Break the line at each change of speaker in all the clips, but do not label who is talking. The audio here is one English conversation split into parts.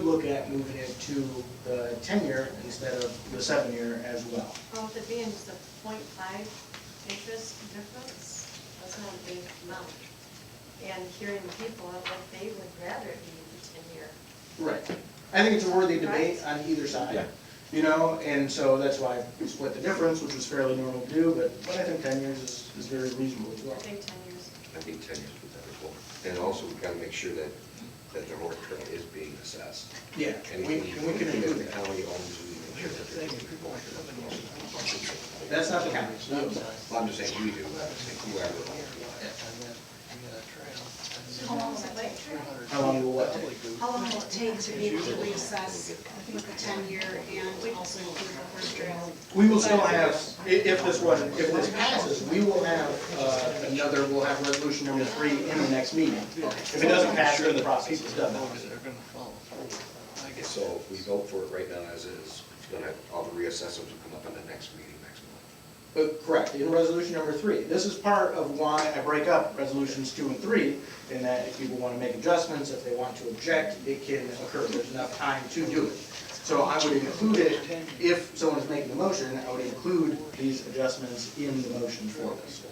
at moving it to the ten-year instead of the seven-year as well.
Well, with it being just a point five interest difference, that's not a big amount. And hearing people, what they would rather it be the ten-year.
Right. I think it's a worthy debate on either
Yeah.
side, you know, and so that's why we split the difference, which was fairly normal to do, but, but I think ten years is, is very reasonable as
I
well.
think ten years,
I think ten years would that as well. And also, we've got to make sure that, that the moratorium is being assessed.
Yeah,
And
we,
we,
and we can
if
include
the
that.
county owns, we make sure that there's people.
That's not the county, no.
Well, I'm just saying, we do, I'm saying whoever owns
How long is it like?
How long will what take?
How long will it take to be able to reassess with the ten-year and also include the horse trail?
We will still have, i- if this one, if this passes, we will have, uh, another, we'll have resolution number three in the next meeting. If it doesn't pass, then the process is done.
it. So if we vote for it right now as is, it's going to, all the reassessments will come up in the next meeting next month.
Uh, Correct, in resolution number three. This is part of why I break up resolutions two and three, in that if people want to make adjustments, if they want to object, it can occur, there's enough time to do it. So I would include it, if someone is making the motion, I would include these adjustments in the motion for this.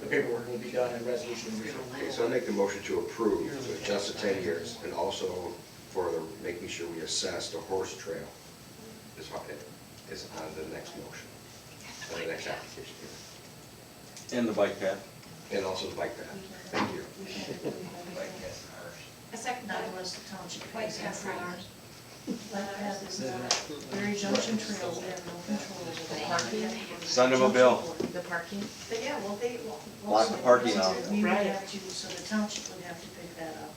The paperwork will be done in resolution number three.
Okay, so I make the motion to approve, to adjust the ten years, and also for the, making sure we assess the horse trail is on, is on the next motion, on the next application.
And the bike path.
And also the bike path. Thank you.
A second
Not
time
unless the township
White
pays that
Castle.
for ours. Let it have this, uh, Mary Junction Trail, we have no control over the parking.
Send them a bill.
The parking?
But yeah, well, they, well.
Lots of parking out.
We would have to, so the township would have to pick that up.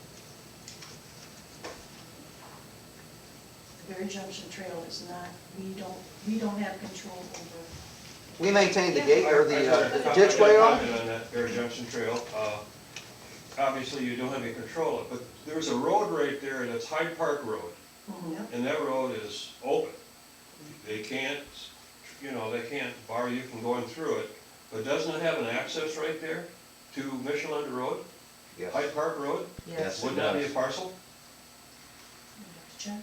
The Mary Junction Trail is not, we don't, we don't have control over
We maintain the gate or the uh,
I've got a
ditch way
comment
off?
On that Bear Junction Trail, uh, obviously you don't have any control of it, but there's a road right there that's Hyde Park Road, and that road is open. They can't, you know, they can't bar you from going through it, but doesn't it have an access right there to Michelin Road,
Yes.
Hyde Park Road?
Yes.
Wouldn't that be a parcel?
Check.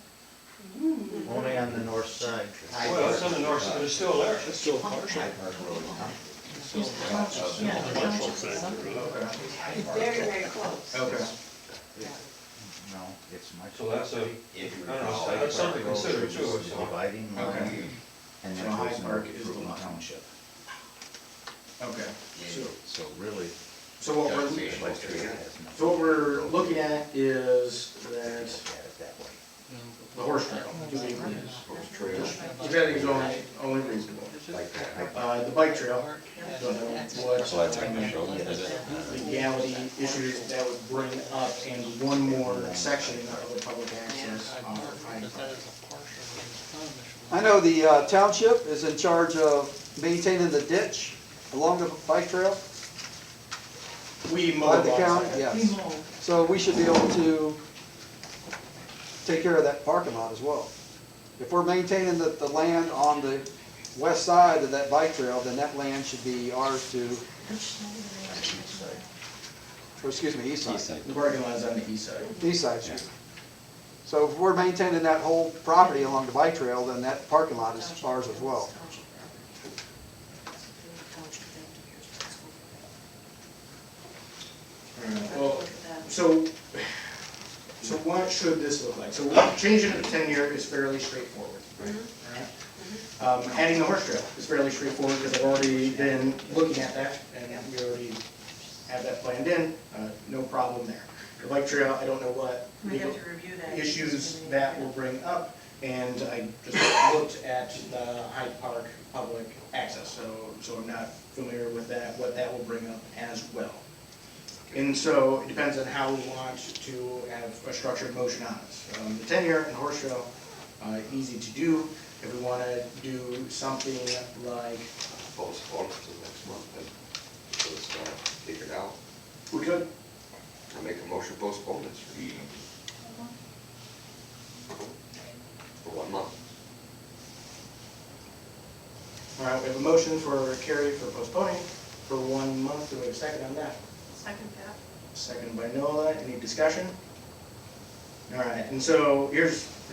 Only on the north side.
Well, it's on the north side, it's still there.
Yeah, the township.
Very, very close.
Okay.
No, it's much.
So that's a,
If
I don't know, that's something to consider too, so.
Dividing
Okay.
and
So Hyde Park is the line.
township.
Okay. So,
So really.
so what
That's the
we're,
issue.
so what we're looking at is that the horse trail, do we,
Horse trail,
depending is only, only reasonable.
like that.
Uh, the bike trail, don't know what
So that's technical, is it?
legality issues that would bring up, and one more section of the public access on Hyde Park.
I know the uh, township is in charge of maintaining the ditch along the bike trail
We
by
mow
the county, yes. So we should be able to take care of that parking lot as well. If we're maintaining the, the land on the west side of that bike trail, then that land should be ours to, or excuse me, east
East
side.
side.
The parking lot's on the east side.
East side, street. So if we're maintaining that whole property along the bike trail, then that parking lot is ours as well.
Township property. Township thing to be responsible for that.
Well, so, so what should this look like? So changing it to ten-year is fairly straightforward.
Mm-hmm.
Alright. Um, adding the horse trail is fairly straightforward, because I've already been looking at that, and we already have that planned in, uh, no problem there. The bike trail, I don't know what
We have to review that.
issues that will bring up, and I just looked at the Hyde Park public access, so, so I'm not familiar with that, what that will bring up as well. And so it depends on how we want to have a structured motion on it. Um, The tenure and horse show, uh, easy to do. If we want to do something like,
Postpone it till next month, and so it's, uh, figured out.
we could,
I make a motion postpone this for For one month.
all right, uh, we have a motion for Carrie for postponing for one month. Do we have a second on that?
Second that.
Second by Nola. Any discussion? All right, and so here's,